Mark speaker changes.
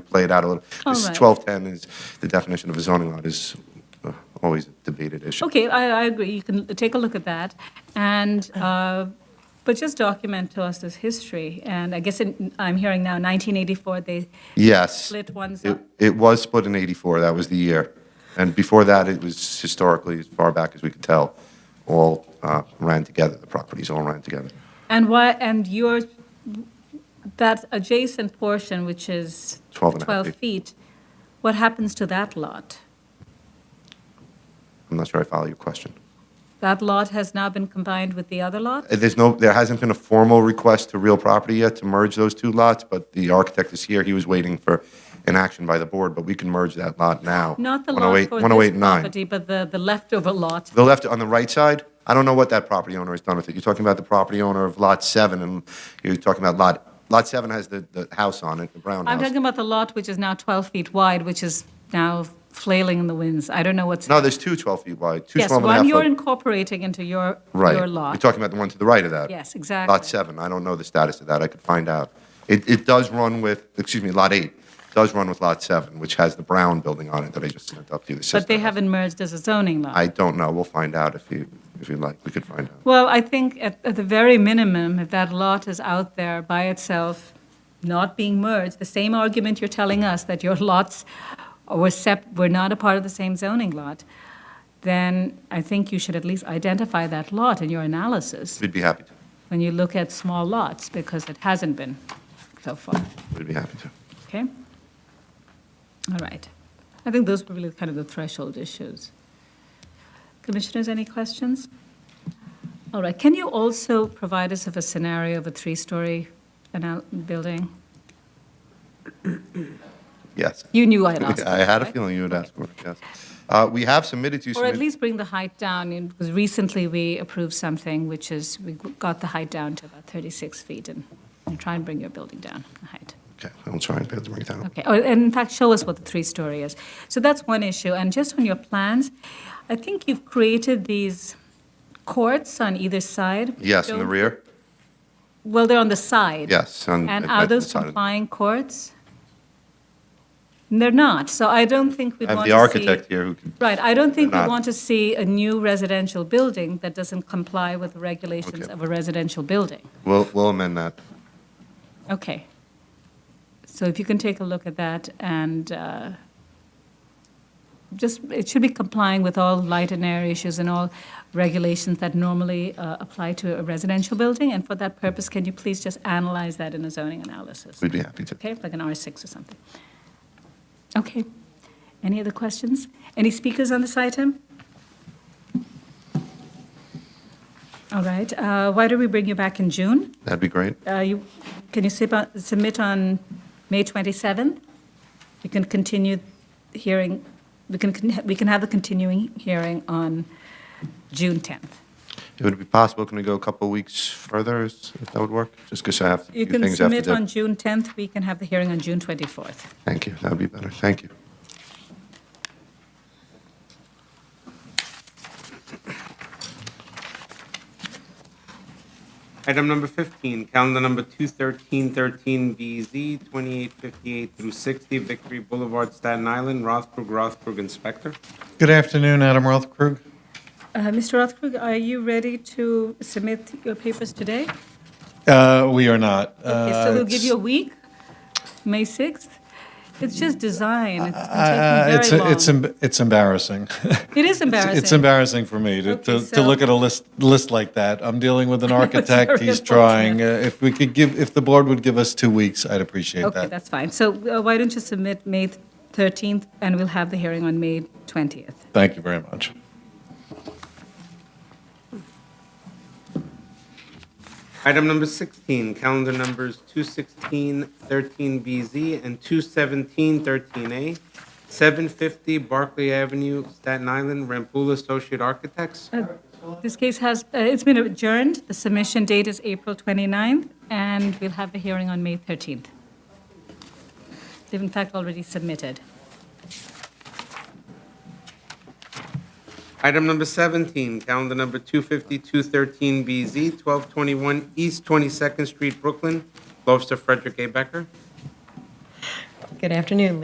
Speaker 1: play it out a little.
Speaker 2: All
Speaker 1: This
Speaker 2: right.
Speaker 1: 1210 is, the definition of a zoning lot is uh, always a debated issue.
Speaker 2: Okay, I, I agree, you can take a look at that, and,
Speaker 1: Uh-huh.
Speaker 2: uh, but just document to us this history, and I guess in- I'm hearing now 1984, they
Speaker 1: Yes.
Speaker 2: split ones
Speaker 1: It
Speaker 2: up.
Speaker 1: it was split in 84, that was the year. And before that, it was historically, as far back as we could tell, all uh, ran together, the properties all ran together.
Speaker 2: And why, and your, that adjacent portion, which is
Speaker 1: 12 and a half
Speaker 2: 12
Speaker 1: feet.
Speaker 2: feet, what happens to that lot?
Speaker 1: I'm not sure I follow your question.
Speaker 2: That lot has now been combined with the other lot?
Speaker 1: Uh, There's no, there hasn't been a formal request to real property yet to merge those two lots, but the architect is here, he was waiting for an action by the board, but we can merge that lot now.
Speaker 2: Not the lot
Speaker 1: 108
Speaker 2: for
Speaker 1: 108
Speaker 2: this
Speaker 1: and 9.
Speaker 2: property, but the, the leftover lot.
Speaker 1: The left on the right side, I don't know what that property owner has done with it. You're talking about the property owner of Lot 7, and you're talking about Lot, Lot 7 has the, the house on it, the brown
Speaker 2: I'm
Speaker 1: house.
Speaker 2: talking about the lot which is now 12 feet wide, which is now flailing in the winds. I don't know what's.
Speaker 1: No, there's two 12 feet wide, two
Speaker 2: Yes,
Speaker 1: 12 and a half
Speaker 2: one you're
Speaker 1: foot.
Speaker 2: incorporating into your,
Speaker 1: Right.
Speaker 2: your
Speaker 1: You're
Speaker 2: lot.
Speaker 1: talking about the one to the right of that.
Speaker 2: Yes, exactly.
Speaker 1: Lot 7, I don't know the status of that, I could find out. It, it does run with, excuse me, Lot 8 does run with Lot 7, which has the brown building on it that I just sent up to you. the
Speaker 2: But
Speaker 1: sister
Speaker 2: they
Speaker 1: house.
Speaker 2: haven't merged as a zoning lot.
Speaker 1: I don't know, we'll find out if you, if you'd like, we could find out.
Speaker 2: Well, I think at, at the very minimum, if that lot is out there by itself, not being merged, the same argument you're telling us that your lots were sep, were not a part of the same zoning lot, then I think you should at least identify that lot in your analysis
Speaker 1: We'd be happy to,
Speaker 2: when you look at small lots, because it hasn't been so far,
Speaker 1: we'd be happy to.
Speaker 2: okay? All right. I think those were really kind of the threshold issues. Commissioners, any questions? All right, can you also provide us with a scenario of a three-story anal- building?
Speaker 1: Yes.
Speaker 2: You knew I'd ask.
Speaker 1: I had a feeling you would ask for it, yes. Uh, We have submitted to
Speaker 2: Or at
Speaker 1: submit,
Speaker 2: least bring the height down, in- because recently we approved something which is, we got the height down to about 36 feet, and and try and bring your building down, the height.
Speaker 1: okay, I'll try and bring it down.
Speaker 2: Okay, or, and in fact, show us what the three-story is. So that's one issue, and just on your plans, I think you've created these courts on either side.
Speaker 1: Yes, in the
Speaker 2: Don't-
Speaker 1: rear,
Speaker 2: Well, they're on the side.
Speaker 1: yes.
Speaker 2: And
Speaker 1: at-
Speaker 2: are
Speaker 1: at the
Speaker 2: those
Speaker 1: side of-
Speaker 2: complying courts? They're not, so I don't think we'd
Speaker 1: I have
Speaker 2: want to
Speaker 1: the
Speaker 2: see.
Speaker 1: architect here who can,
Speaker 2: Right, I don't think we
Speaker 1: They're not.
Speaker 2: want to see a new residential building that doesn't comply with the regulations
Speaker 1: Okay.
Speaker 2: of a residential building.
Speaker 1: we'll we'll amend that.
Speaker 2: Okay. So if you can take a look at that and uh, just, it should be complying with all light and air issues and all regulations that normally uh, apply to a residential building. And for that purpose, can you please just analyze that in a zoning analysis?
Speaker 1: We'd be happy to.
Speaker 2: Okay, like an R6 or something. Okay. Any other questions? Any speakers on this item? All right, uh, why don't we bring you back in June?
Speaker 1: That'd be great.
Speaker 2: Uh, you- Can you sub- uh, submit on May 27th? We can continue hearing, we can, con- we can have the continuing hearing on June 10th.
Speaker 1: It would be possible, can we go a couple weeks further, is- if that would work? Just because I have a few
Speaker 2: You can
Speaker 1: things I have to
Speaker 2: submit on
Speaker 1: do.
Speaker 2: June 10th, we can have the hearing on June 24th.
Speaker 1: Thank you, that'd be better, thank you.
Speaker 3: Item number 15, calendar number 21313BZ, 2858 through 60, Victory Boulevard, Staten Island, Rothberg, Rothberg Inspector.
Speaker 4: Good afternoon, Adam Rothkrug.
Speaker 2: Uh, Mr. Rothkrug, are you ready to submit your papers today?
Speaker 4: Uh, we are not.
Speaker 2: Okay, so
Speaker 4: Uh,
Speaker 2: we'll give
Speaker 4: it's-
Speaker 2: you a week, May 6th. It's just design, it's
Speaker 4: uh,
Speaker 2: been
Speaker 4: it's
Speaker 2: taking very
Speaker 4: it's
Speaker 2: long.
Speaker 4: em- it's embarrassing.
Speaker 2: It is embarrassing.
Speaker 4: It's embarrassing for me to,
Speaker 2: Okay,
Speaker 4: to,
Speaker 2: so-
Speaker 4: to look at a list list like that. I'm dealing with an architect.
Speaker 2: very
Speaker 4: He's
Speaker 2: unfortunate.
Speaker 4: drawing. Uh, if we could give, if the board would give us two weeks, I'd appreciate
Speaker 2: Okay,
Speaker 4: that.
Speaker 2: that's fine. So uh, why don't you submit May 13th, and we'll have the hearing on May 20th?
Speaker 4: Thank you very much.
Speaker 3: Item number 16, calendar numbers 21613BZ and 21713A, 750 Barclay Avenue, Staten Island, Rampoule Associate Architects.
Speaker 2: This case has, uh, it's been adjourned, the submission date is April 29th, and we'll have the hearing on May 13th. They've in fact already submitted.
Speaker 3: Item number 17, calendar number 25213BZ, 1221 East 22nd Street, Brooklyn, Lobster Frederick A. Becker.
Speaker 5: Good afternoon,